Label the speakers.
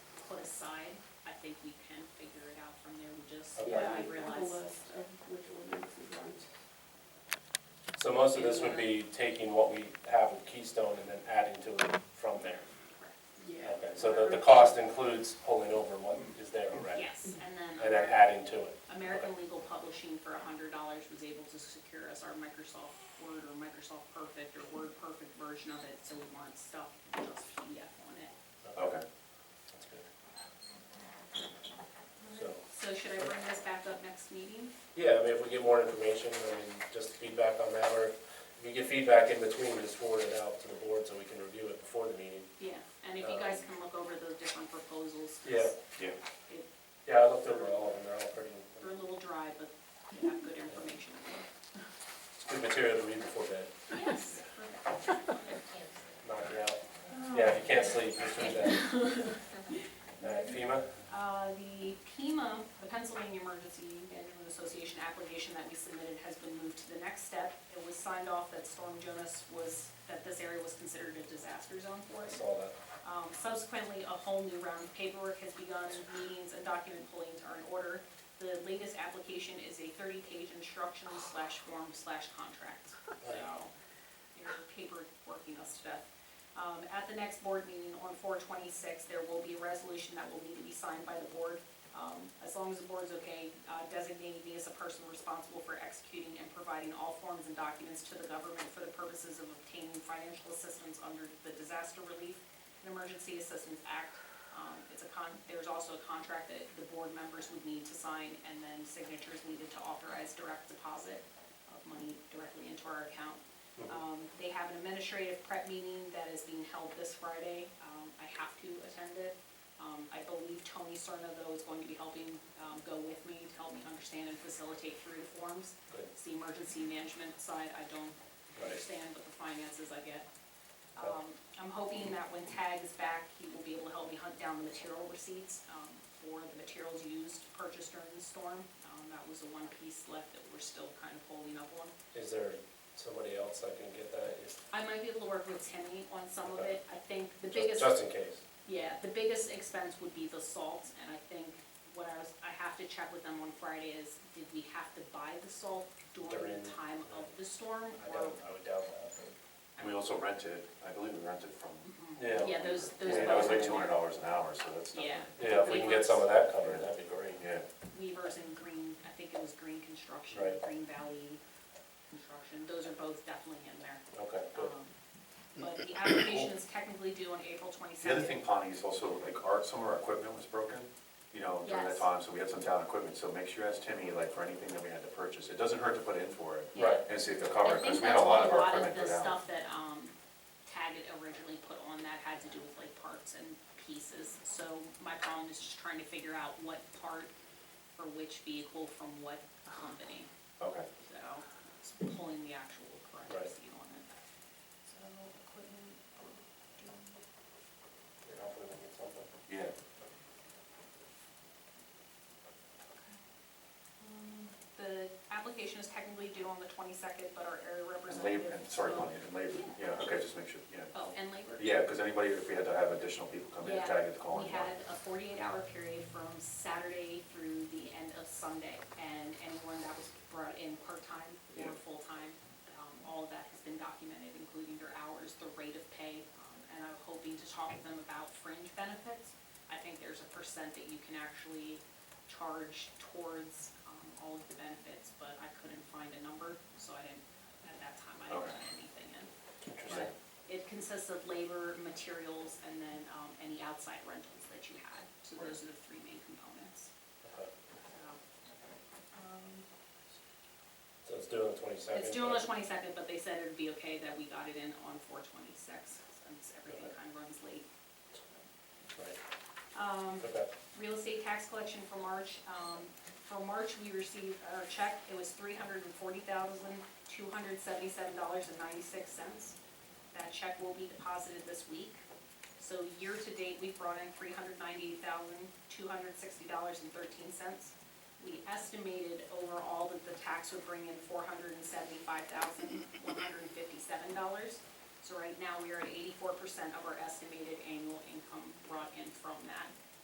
Speaker 1: side, I think we can figure it out from there, we just,
Speaker 2: Okay.
Speaker 1: yeah, I
Speaker 3: I have a
Speaker 1: realize.
Speaker 3: list of which ordinances aren't.
Speaker 2: So most of this would be taking what we have with Keystone and then adding to it from there.
Speaker 3: Yeah.
Speaker 2: Okay, so the, the cost includes pulling over what is there already?
Speaker 1: Yes, and
Speaker 2: And then
Speaker 1: then
Speaker 2: adding to it?
Speaker 1: American Legal Publishing for a hundred dollars was able to secure us our Microsoft Word or Microsoft Perfect or Word Perfect version of it, so we want stuff just PDF on it.
Speaker 2: Okay. That's good. So,
Speaker 1: So should I bring this back up next meeting?
Speaker 2: yeah, I mean, if we get more information, I mean, just feedback on that, or if you get feedback in between, just forward it out to the board so we can review it before the meeting.
Speaker 1: Yeah, and if you guys can look over those different proposals. 'cause
Speaker 2: Uh, Yeah.
Speaker 4: Yeah.
Speaker 1: it-
Speaker 2: Yeah, I looked over all of them, they're all pretty,
Speaker 1: They're a little dry, but they have good information.
Speaker 2: it's good material to read before bed,
Speaker 1: Yes.
Speaker 2: knock it out. Yeah, if you can't sleep, just read that. All right, FEMA?
Speaker 1: Uh, the PEMA, the Pennsylvania Emergency Management Association application that we submitted has been moved to the next step. It was signed off that Storm Jonas was, that this area was considered a disaster zone for
Speaker 2: I
Speaker 1: us.
Speaker 2: saw that.
Speaker 1: Um, subsequently, a whole new round of paperwork has begun, meetings and document pullings are in order. The latest application is a thirty-page instruction slash form slash contract, so they're paperworking us to death. Um, at the next board meeting on four twenty-six, there will be a resolution that will need to be signed by the board. Um, as long as the board's okay, uh, designating me as a person responsible for executing and providing all forms and documents to the government for the purposes of obtaining financial assistance under the Disaster Relief and Emergency Assistance Act. Um, it's a con, there's also a contract that the board members would need to sign, and then signatures needed to authorize direct deposit of money directly into our account. Um, they have an administrative prep meeting that is being held this Friday. Um, I have to attend it. Um, I believe Tony Serna, though, is going to be helping, um, go with me to help me understand and facilitate through the forms.
Speaker 2: Good.
Speaker 1: It's the emergency management side, I don't
Speaker 2: Right.
Speaker 1: understand, but the finances I get.
Speaker 2: Okay.
Speaker 1: Um, I'm hoping that when Tag is back, he will be able to help me hunt down the material receipts, um, for the materials used, purchased during the storm. Um, that was the one piece left that we're still kind of holding up on.
Speaker 2: Is there somebody else I can get that? Is-
Speaker 1: I might be able to work with Timmy on some of it.
Speaker 2: Okay.
Speaker 1: I think the
Speaker 2: just-
Speaker 1: biggest,
Speaker 2: Just in case.
Speaker 1: yeah, the biggest expense would be the salt, and I think what I was, I have to check with them on Friday is, did we have to buy the salt during
Speaker 2: During-
Speaker 1: the time of the storm?
Speaker 2: I
Speaker 1: or
Speaker 2: doubt, I would doubt that. but-
Speaker 4: We also rented, I believe we rented from,
Speaker 2: Yeah,
Speaker 1: Yeah, those, those.
Speaker 4: yeah, that was like
Speaker 1: both
Speaker 4: two
Speaker 1: are-
Speaker 4: hundred dollars an hour, so that's nothing.
Speaker 1: Yeah.
Speaker 2: yeah, if we can get some of that covered, that'd be great.
Speaker 4: Yeah,
Speaker 1: Weavers and Green, I think it was Green Construction,
Speaker 2: Right.
Speaker 1: Green Valley Construction, those are both definitely in there.
Speaker 2: Okay, good.
Speaker 1: Um, But the application is technically due on April
Speaker 4: the other
Speaker 1: twenty-second.
Speaker 4: thing, Pawnee, is also like our, some of our equipment was broken, you know, during
Speaker 1: Yes.
Speaker 4: that time, so we had some town equipment, so make sure you ask Timmy, like, for anything that we had to purchase, it doesn't hurt to put in for it,
Speaker 1: Yeah.
Speaker 2: Right.
Speaker 4: and see if they'll
Speaker 1: I
Speaker 4: cover it,
Speaker 1: think
Speaker 4: because
Speaker 1: that's
Speaker 4: we had a lot of our
Speaker 1: of
Speaker 4: equipment
Speaker 1: the
Speaker 4: go down.
Speaker 1: stuff that, um, Taggett originally put on that had to do with like parts and pieces. So my problem is just trying to figure out what part for which vehicle from what company.
Speaker 4: Okay,
Speaker 1: So it's pulling the actual correct
Speaker 2: Right.
Speaker 1: receipt on it. So equipment, oh,
Speaker 2: Yeah, Hopefully we get something.
Speaker 4: yeah,
Speaker 1: um, the application is technically due on the twenty-second, but our area
Speaker 4: and labor,
Speaker 1: representative.
Speaker 4: and sorry,
Speaker 1: will-
Speaker 4: Pawnee, and labor,
Speaker 1: Yeah.
Speaker 4: yeah, okay, just make sure, yeah.
Speaker 1: Oh, and labor.
Speaker 4: Yeah, because anybody, if we had to have additional people come in,
Speaker 1: Yeah,
Speaker 4: tag it, call in.
Speaker 1: We had a forty-eight hour period from Saturday through the end of Sunday, and anyone that was brought in part-time or
Speaker 4: Yeah.
Speaker 1: full-time, um, all of that has been documented, including their hours, the rate of pay, um, and I'm hoping to talk to them about fringe benefits. I think there's a percent that you can actually charge towards, um, all of the benefits, but I couldn't find a number, so I didn't, at that time, I didn't
Speaker 4: Okay.
Speaker 1: put anything in.
Speaker 2: Interesting.
Speaker 1: It consists of labor, materials, and then um, any outside rentals that you had. So those are the three main components.
Speaker 2: Okay.
Speaker 1: So, um,
Speaker 2: So it's due on the twenty-second.
Speaker 1: It's due on the twenty-second, but they said it'd be okay that we got it in on four twenty-six, since everything
Speaker 2: Okay.
Speaker 1: kind of runs late.
Speaker 2: Right,
Speaker 1: Um,
Speaker 2: okay.
Speaker 1: real estate tax collection for March. Um, For March, we received our check, it was three hundred and forty thousand, two hundred seventy-seven dollars and ninety-six cents. That check will be deposited this week. So year-to-date, we've brought in three hundred ninety-eight thousand, two hundred sixty dollars and thirteen cents. We estimated overall that the tax would bring in four hundred and seventy-five thousand, one hundred and fifty-seven dollars. So right now, we are at eighty-four percent of our estimated annual income brought in from that.